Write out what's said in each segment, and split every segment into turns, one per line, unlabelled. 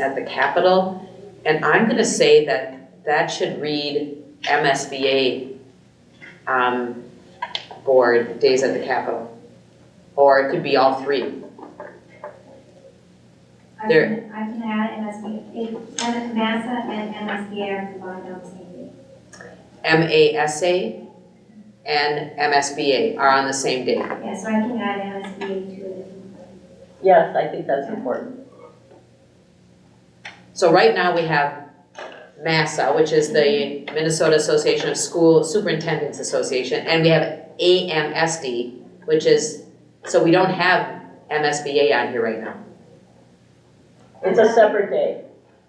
at the Capitol. And I'm gonna say that that should read MSBA, um, board, days at the Capitol. Or it could be all three.
I
There-
can, I can add MSBA, M- Massa and MSBA are combined on the same day.
MASA and MSBA are on the same day.
Yeah, so I can add MSBA to it.
Yes, I think that's important.
So right now we have MASSA, which is the Minnesota Association of School Superintendents Association, and we have AMSD, which is, so we don't have MSBA on here right now.
It's a separate day.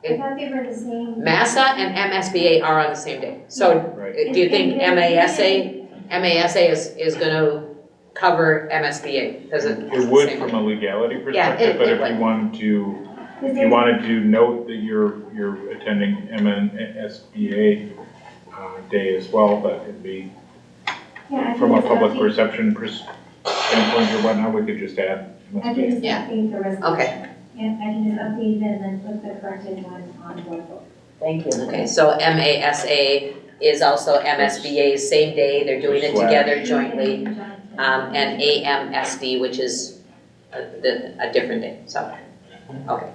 I thought they were the same.
MASSA and MSBA are on the same day. So uh,
Right.
do you think
And- and they-
MASA, MASA is, is gonna cover MSBA? Does it?
It would from a legality
Yeah, it-
perspective, but
it
if you
would.
wanted to,
Because
if
they-
you wanted to note that you're, you're attending MNSBA uh, day as well, that could be,
Yeah, I think
from a
it's
public
okay.
perception pers- standpoint or whatnot, we could just add
I can
MSBA.
just
Yeah.
update the resolution.
Okay.
Yeah, I can just update it and then put the corrected one on board.
Thank you.
Okay, so MASA is also MSBA's same day, they're doing it together jointly. um, and AMSD, which is a, the, a different day, so, okay.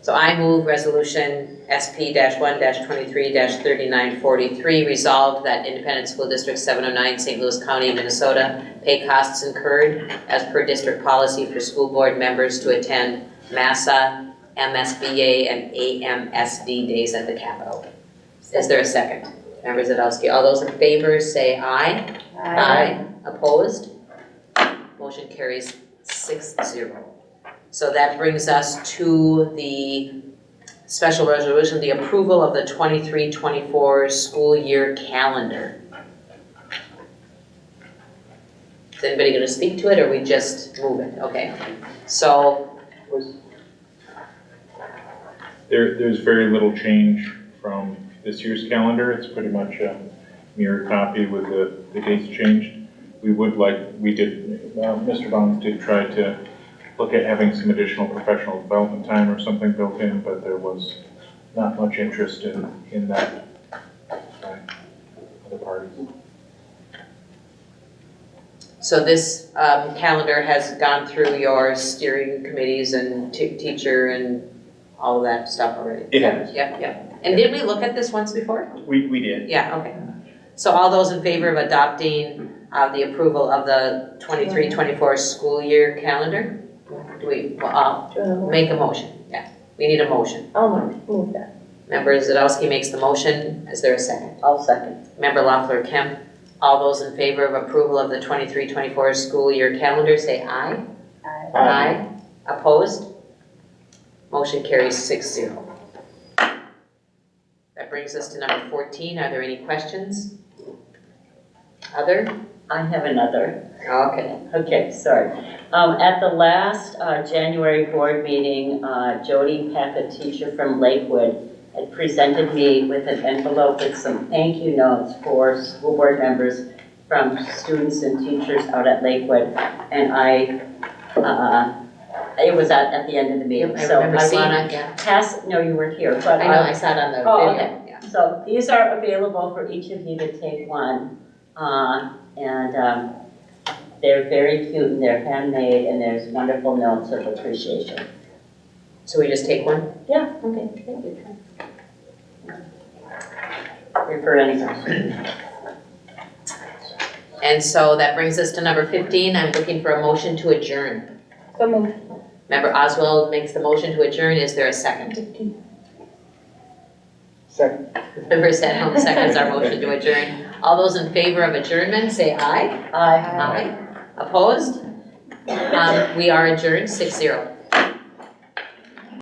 So I move resolution SP one twenty-three thirty-nine forty-three, resolved that Independent School District seven oh nine, St. Louis County, Minnesota, pay costs incurred as per district policy for school board members to attend MASSA, MSBA, and AMSD days at the Capitol. Is there a second? Member Zadowski, all those in favor say aye. Aye. Opposed? Motion carries six zero. So that brings us to the special resolution, the approval of the 23-24 school year calendar. Is anybody gonna speak to it, or we just move it? Okay, so,
There, there's very little change from this year's calendar, it's pretty much a mirror copy with the, the dates changed. We would like, we did, uh, Mr. Bonds did try to look at having some additional professional development time or something built in, but there was not much interest in, in that by other parties.
so this, um, calendar has gone through your steering committees and t- teacher and all of that stuff already?
It has.
Yep, yep. And did we look at this once before?
We, we did.
Yeah, okay. So all those in favor of adopting uh, the approval of the 23-24 school year calendar? Do we, well, uh, make a motion, yeah, we need a motion.
I'll move that.
Member Zadowski makes the motion, is there a second?
I'll second.
Member Loeffler Kemp, all those in favor of approval of the 23-24 school year calendar, say aye. Aye. Opposed? Motion carries six zero. That brings us to number fourteen, are there any questions? Other?
I have another.
Okay.
Okay, sorry. Um, at the last, uh, January board meeting, uh, Jody Peck, a teacher from Lakewood, had presented me with an envelope with some thank you notes for school board members from students and teachers out at Lakewood. And I, uh, it was at, at the end of the meeting,
I
so I
remember seeing
wanna
it, yeah.
pass, no, you weren't here, but
I know, I saw it on the
Oh,
video, yeah.
so these are available for each of you to take one. Uh, And um, they're very cute and they're handmade and there's wonderful notes of appreciation.
So we just take one?
Yeah, okay, thank you. Refer any questions.
And so that brings us to number fifteen, I'm looking for a motion to adjourn.
So moved.
Member Oswald makes the motion to adjourn, is there a second?
Second.
Member Stanholm seconds our motion to adjourn. All those in favor of adjournment, say aye.
Aye.
Aye. Opposed? Um, we are adjourned, six zero.